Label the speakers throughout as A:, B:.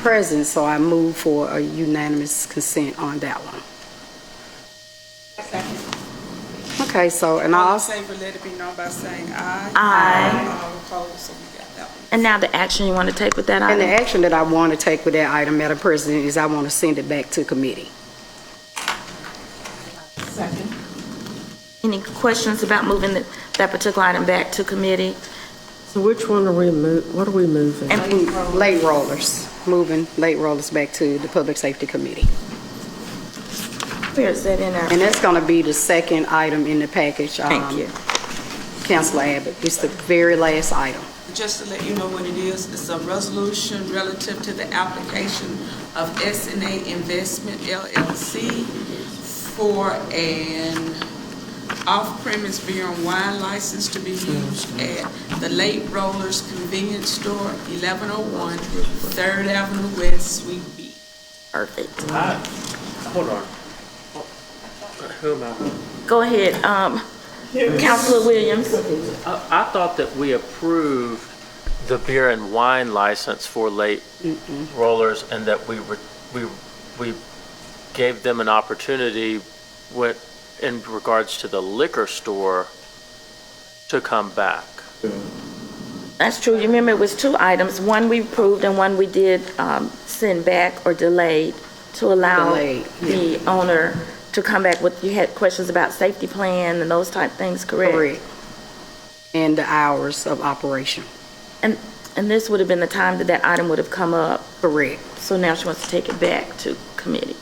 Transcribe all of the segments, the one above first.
A: present, so I move for a unanimous consent on that one. Okay, so, and I
B: All in
A: also,
B: favor, let it be known by saying aye.
C: Aye.
B: All opposed, so we got that one.
C: And now the action you want to take with that
A: and the
C: item?
A: action that I want to take with that item, Madam President, is I want to send it back to committee.
B: Second.
C: Any questions about moving the- that particular item back to committee?
D: So which one are we mo, what are we moving?
C: And
A: Late rollers, moving late rollers back to the Public Safety Committee.
C: where is that in our?
A: And that's going to be the second item in the package. um,
C: Thank you.
A: Councilor Abbott, it's the very last item.
B: Just to let you know what it is, it's a resolution relative to the application of SNA Investment LLC for an off-premise beer and wine license to be used at the Late Rollers Convenience Store, 1101 Third Avenue West, Suite B.
C: Perfect.
E: I- Hold on. Who am I?
C: Go ahead, um, Counselor Williams.
E: I, I thought that we approved the beer and wine license for late rollers and that we were, we, we gave them an opportunity with, in regards to the liquor store to come back.
C: That's true. You remember it was two items, one we approved and one we did um, send back or delayed to allow
A: Delayed,
C: the owner to come back with, you had questions about safety plan and those type things, correct?
A: Correct. And the hours of operation.
C: And this would have been the time that that item would have come up,
A: Correct.
C: so now she wants to take it back to committee.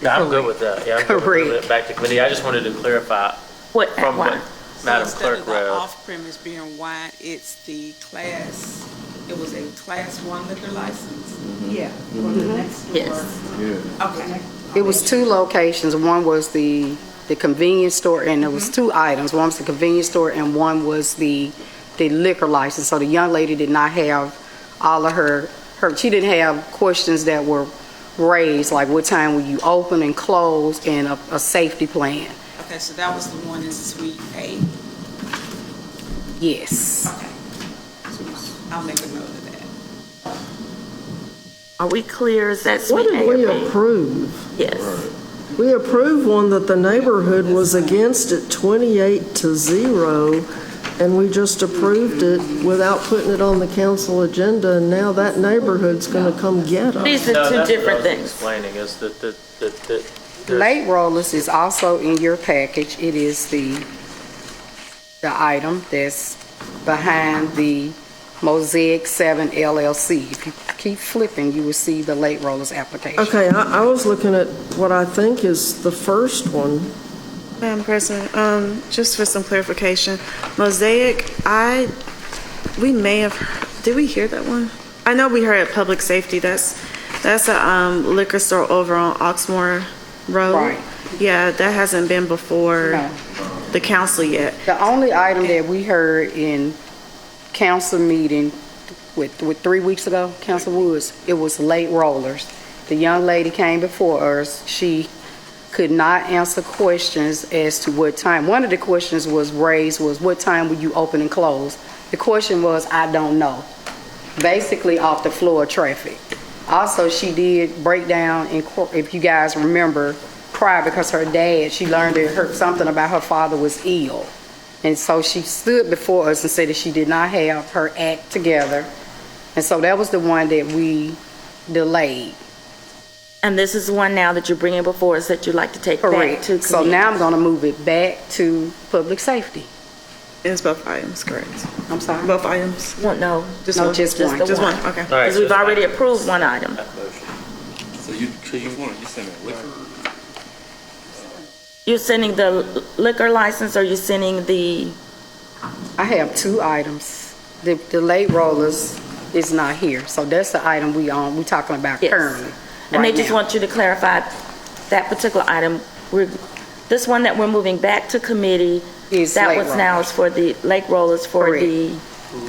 E: Yeah, I'm good with that. Yeah, I'm good with moving
A: Correct.
E: it back to committee. I just wanted to clarify
C: What,
E: from what
C: why?
E: Madam
B: So Instead
E: Clerk
B: of
C: uh,
B: the
E: read.
B: off-premise beer and wine, it's the class, it was a class one liquor license? Yeah.
C: Mm-hmm.
B: Mm-hmm.
C: Yes,
B: Okay.
A: It was two locations. One was the, the convenience store, and it was two items. One was the convenience store, and one was the, the liquor license. So the young lady did not have all of her, her, she didn't have questions that were raised, like what time will you open and close, and a, a safety plan.
B: Okay, so that was the one in Suite A.
A: Yes.
B: Okay. I'll make a note of that.
C: are we clear, is that
D: What
C: sweet
D: did
C: A
D: we
C: or B?
D: approve?
C: Yes,
D: We approved one that the neighborhood was against at 28 to 0, and we just approved it without putting it on the council agenda, and now that neighborhood's going to come get us.
C: these
E: No,
C: are two
E: that's what I
C: different
E: was
C: things.
E: Explaining is that, that, that, that. there's-
A: Late rollers is also in your package. It is the, the item that's behind the Mosaic Seven LLC. If you keep flipping, you will see the late rollers application.
D: Okay, I, I was looking at what I think is the first one.
F: Madam President, um, just for some clarification, Mosaic, I, we may have, did we hear that one? I know we heard at Public Safety, that's, that's a um, liquor store over on Oxmoor Road.
A: Right.
F: Yeah, that hasn't been before
A: No.
F: the council yet.
A: The only item that we heard in council meeting with, with three weeks ago, Council Woods, it was late rollers. The young lady came before us, she could not answer questions as to what time. One of the questions was raised was, what time will you open and close? The question was, I don't know, basically off the floor of traffic. Also, she did break down, in cour- if you guys remember, prior, because her dad, she learned that her, something about her father was ill. And so she stood before us and said that she did not have her act together. And so that was the one that we delayed.
C: And this is one now that you're bringing before us that you'd like to take back to committee.
A: So now I'm going to move it back to public safety.
F: It's both items, correct?
A: I'm sorry.
F: Both items?
C: Well, no,
F: Just
A: No,
F: one?
A: just one.
C: the
F: Just one, okay.
E: All right,
C: because
E: so
C: we've
E: it's-
C: already approved one item.
G: So you, so you want, you send it liquor?
C: You're sending the liquor license, or you're sending the,
A: I have two items. The, the late rollers is not here. So that's the item we on, we talking about
C: Yes.
A: currently.
C: and they
A: right
C: just
A: now.
C: want you to clarify that particular item, we're, this one that we're moving back to committee,
A: Is
C: that
A: late
C: was now is for the Lake Rollers for
A: Correct.
C: the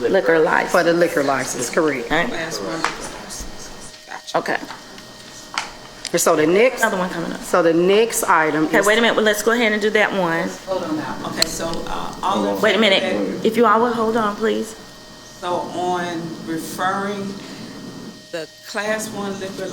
C: liquor
A: For
C: license.
A: the liquor license, correct.
C: Okay.
B: Class one liquor license. Gotcha.
C: Okay,
A: And so the next,
C: another one coming up.
A: so the next item
C: Okay,
A: is,
C: wait a minute, well, let's go ahead and do that one.
B: Hold on now. Okay, so, uh, all in.
C: Wait a
B: favor-
C: minute, if you all would hold on, please.
B: So on referring the Class one liquor